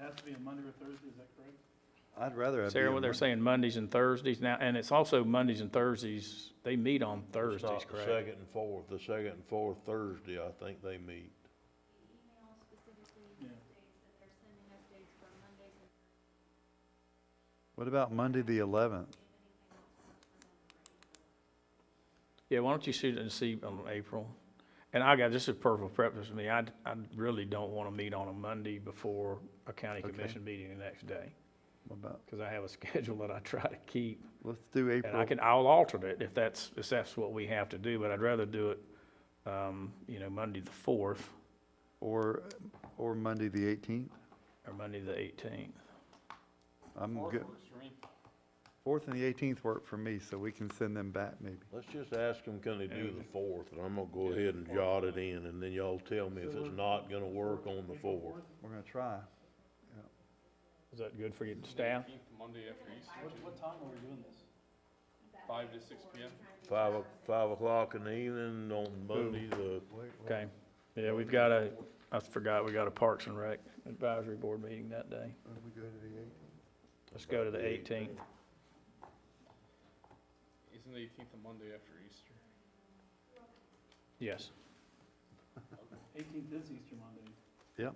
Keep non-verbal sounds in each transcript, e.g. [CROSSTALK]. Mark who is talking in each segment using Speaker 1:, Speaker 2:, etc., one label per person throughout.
Speaker 1: has to be a Monday or Thursday, is that correct?
Speaker 2: I'd rather. it be
Speaker 3: Sarah,
Speaker 2: on
Speaker 3: what they're
Speaker 2: Monday.
Speaker 3: saying Mondays and Thursdays now, and it's also Mondays and Thursdays, they meet on
Speaker 4: It's not
Speaker 3: Thursdays,
Speaker 4: the
Speaker 3: correct?
Speaker 4: Second and fourth, the second and fourth Thursday, I think they meet.
Speaker 1: Yeah.
Speaker 2: What about Monday, the eleventh?
Speaker 3: Yeah, why don't you shoot it and see on April? And I got, this is perfect preference for me, I, I really don't want to meet on a Monday before a county
Speaker 2: Okay.
Speaker 3: commission meeting the next day,
Speaker 2: What about,
Speaker 3: because I have a [LAUGHS] schedule that I try to keep.
Speaker 2: let's do April.
Speaker 3: And I can, I'll alternate if that's, if that's what we have to do, but I'd rather do it, um, you know, Monday the fourth
Speaker 2: Or, or Monday, the eighteenth?
Speaker 3: or Monday the eighteenth.
Speaker 2: I'm good. Fourth and the eighteenth work for me, so we can send them back maybe.
Speaker 4: Let's just ask them, can they do the
Speaker 3: And-
Speaker 4: fourth, and I'm gonna go ahead and jot it in, and then y'all tell me if it's not gonna work on the fourth.
Speaker 2: We're gonna try.
Speaker 3: Is that good for your staff?
Speaker 5: Monday after Easter,
Speaker 1: What, what time are we doing this?
Speaker 5: five to six P M.
Speaker 4: Five, o- five o'clock in the evening on Monday, the,
Speaker 3: Okay, yeah, we've got a, I forgot, we got a Parks and Rec Advisory Board meeting that day. Let's go to the eighteenth.
Speaker 5: Isn't the eighteenth a Monday after Easter?
Speaker 3: Yes,
Speaker 1: Eighteenth is Easter Monday.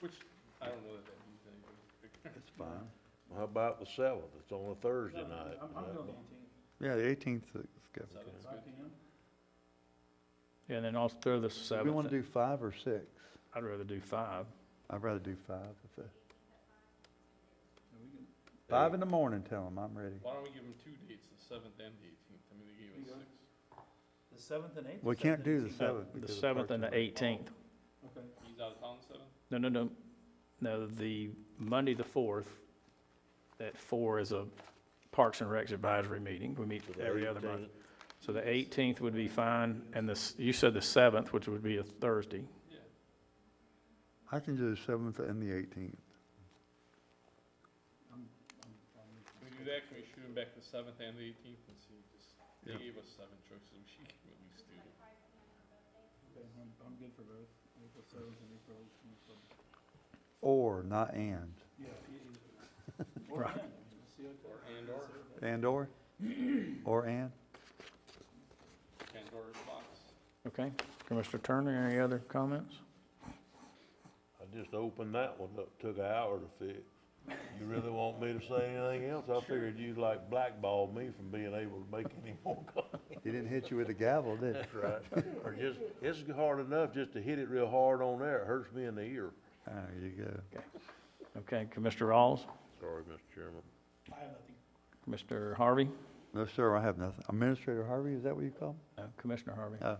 Speaker 5: Which, I don't know that that means anything. [LAUGHS]
Speaker 2: That's fine.
Speaker 4: how about the seventh, it's on a Thursday
Speaker 1: No,
Speaker 4: night.
Speaker 1: I'm, I'm doing eighteenth,
Speaker 2: Yeah, the eighteenth is good.
Speaker 5: Seven's
Speaker 1: five P
Speaker 5: good.
Speaker 1: M.
Speaker 3: and then I'll throw the
Speaker 2: Do we wanna
Speaker 3: seventh,
Speaker 2: do five or six?
Speaker 3: I'd rather do five.
Speaker 2: I'd rather do five. if that-
Speaker 1: Yeah, we can-
Speaker 2: Five in the morning, tell them I'm ready.
Speaker 5: Why don't we give them two dates, the seventh and the eighteenth? I mean, they gave
Speaker 1: Yeah.
Speaker 5: us six.
Speaker 1: The seventh and eighth?
Speaker 2: We
Speaker 1: or
Speaker 2: can't
Speaker 1: seventh and
Speaker 2: do the
Speaker 1: eighteenth?
Speaker 3: Uh,
Speaker 2: seventh.
Speaker 3: The
Speaker 2: because of
Speaker 3: seventh
Speaker 2: Parks
Speaker 3: and
Speaker 2: Rec.
Speaker 3: the eighteenth.
Speaker 1: Okay,
Speaker 5: He's out of town the seventh?
Speaker 3: No, no, no, no, the Monday the fourth, at four is a Parks and Rec Advisory meeting. We meet
Speaker 4: The
Speaker 3: every other month.
Speaker 4: 18th.
Speaker 3: So the eighteenth would be fine, and this, you said the seventh, which would be a Thursday.
Speaker 5: Yeah.
Speaker 2: I can do the seventh and the eighteenth.
Speaker 1: I'm, I'm, I'm.
Speaker 5: Can we do that? Can we shoot them back the seventh and the eighteenth and see? Just, they
Speaker 2: Yeah.
Speaker 5: gave us seven choices. We should give 'em at least two.
Speaker 1: Okay, I'm, I'm good for both, April seventh and April eighteenth.
Speaker 2: Or, not and.
Speaker 1: Yeah, e- either. Or and, let's see what-
Speaker 5: Or and or,
Speaker 2: And or? Or and?
Speaker 5: Pandora's box.
Speaker 3: Okay, Commissioner Turner, any other comments?
Speaker 4: I just opened that one up, took an hour to fix. You really want me to say anything else? I figured you'd like blackball me from being able to make any more comments.
Speaker 2: He didn't hit you with a gavel,
Speaker 4: [LAUGHS]
Speaker 2: did he?
Speaker 4: Right. Or just, it's hard enough just to hit it real hard on there, it hurts me in the ear.
Speaker 2: There you go.
Speaker 3: Okay, Commissioner Rawls,
Speaker 4: Sorry, Mr. Chairman.
Speaker 1: I have nothing.
Speaker 3: Commissioner Harvey,
Speaker 2: No, sir, I have nothing. Administrator Harvey, is that what you call him?
Speaker 3: Uh, Commissioner Harvey.
Speaker 2: Oh.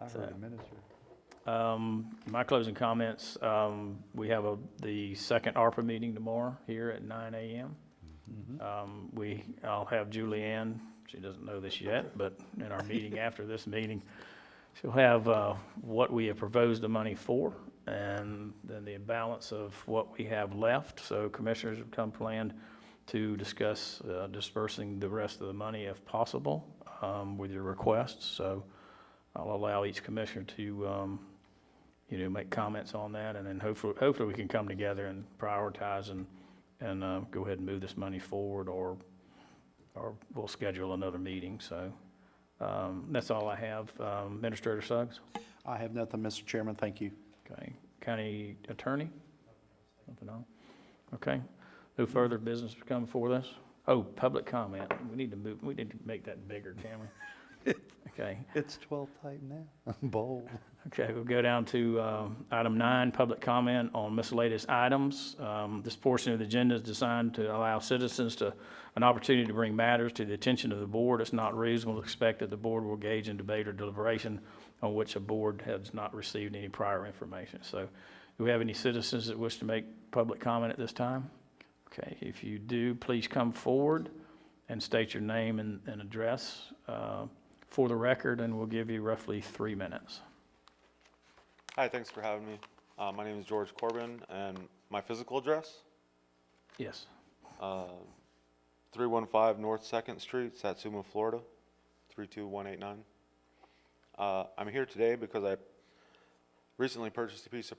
Speaker 2: I
Speaker 3: So-
Speaker 2: heard administrator.
Speaker 3: Um, My closing comments, um, we have a, the second ARPA meeting tomorrow here at nine AM.
Speaker 2: Mhm.
Speaker 3: Um, We, I'll have Julianne, she doesn't know this yet, but in our meeting after this meeting, she'll have uh, what we have proposed the money for, and then the balance of what we have left. So commissioners have come planned to discuss uh, dispersing the rest of the money if possible um, with your requests. So I'll allow each commissioner to, um, you know, make comments on that, and then hopefully, hopefully we can come together and prioritize and and uh, go ahead and move this money forward, or, or we'll schedule another meeting, so. um, That's all I have. Um, Administrator Suggs?
Speaker 6: I have nothing, Mr. Chairman, thank you.
Speaker 3: Okay. County Attorney? Nothing on? Okay. No further business to come before this? Oh, public comment. We need to move, we need to make that bigger, can we?
Speaker 6: [LAUGHS]
Speaker 3: Okay.
Speaker 2: It's twelve type now. [LAUGHS] Bold.
Speaker 3: Okay, we'll go down to um, item nine, public comment on miscellaneous items. Um, This portion of the agenda is designed to allow citizens to, an opportunity to bring matters to the attention of the board. It's not reasonable to expect that the board will engage in debate or deliberation on which a board has not received any prior information. So do we have any citizens that wish to make public comment at this time? Okay, if you do, please come forward and state your name and, and address uh, for the record, and we'll give you roughly three minutes.
Speaker 7: Hi, thanks for having me. Uh, my name is George Corbin, and my physical address,
Speaker 3: Yes.
Speaker 7: uh, 315 North Second Street, Satsuma, Florida, 32189. Uh, I'm here today because I recently purchased a piece of